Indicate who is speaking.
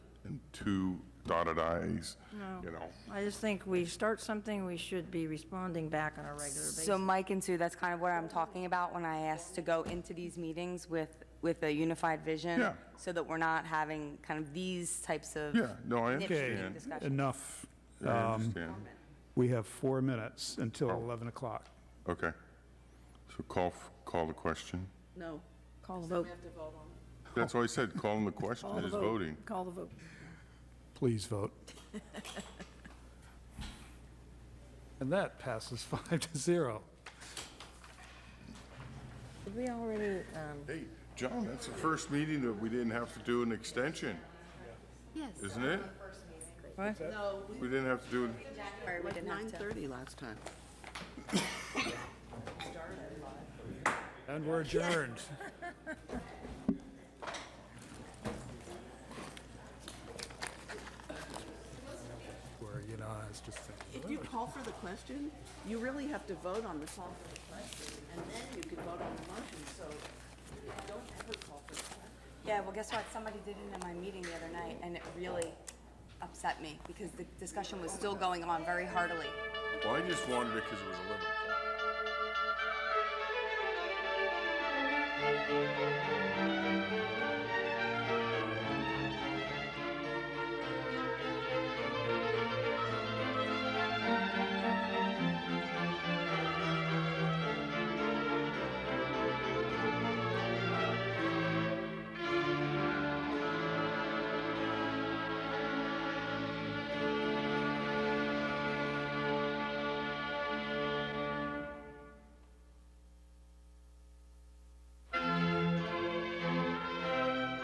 Speaker 1: two dotted i's,
Speaker 2: No.
Speaker 1: you know.
Speaker 2: I just think we start something, we should be responding back on a regular basis.
Speaker 3: So Mike and Sue, that's kind of what I'm talking about when I asked to go into these meetings with, with a unified vision.
Speaker 1: Yeah.
Speaker 3: So that we're not having kind of these types of.
Speaker 1: Yeah, no, I
Speaker 3: nitpicking
Speaker 1: understand.
Speaker 4: Okay,
Speaker 3: discussions.
Speaker 4: enough.
Speaker 1: I
Speaker 2: Um,
Speaker 1: understand.
Speaker 4: We have four minutes until 11 o'clock.
Speaker 1: Okay. So call, f- call the question.
Speaker 5: No,
Speaker 2: Call the vote.
Speaker 1: That's why I said calling the question
Speaker 2: Call the
Speaker 1: is
Speaker 2: vote.
Speaker 1: voting.
Speaker 2: Call the vote.
Speaker 4: Please vote. And that passes five to zero.
Speaker 2: Did we already, um,
Speaker 1: Hey, John, that's the first meeting that we didn't have to do an extension. Yes. Isn't it?
Speaker 2: what?
Speaker 1: We didn't have to do, an-
Speaker 5: like 9:30 last time.
Speaker 4: And we're adjourned. Where, you know, I was just thinking.
Speaker 5: If you call for the question, you really have to vote on the call for the question, and then you can vote on the motion, so don't ever call for the question.
Speaker 3: Yeah, well, guess what? Somebody did it in my meeting the other night and it really upset me because the discussion was still going on very heartily.
Speaker 1: well, I just wanted it because it was 11 o'clock.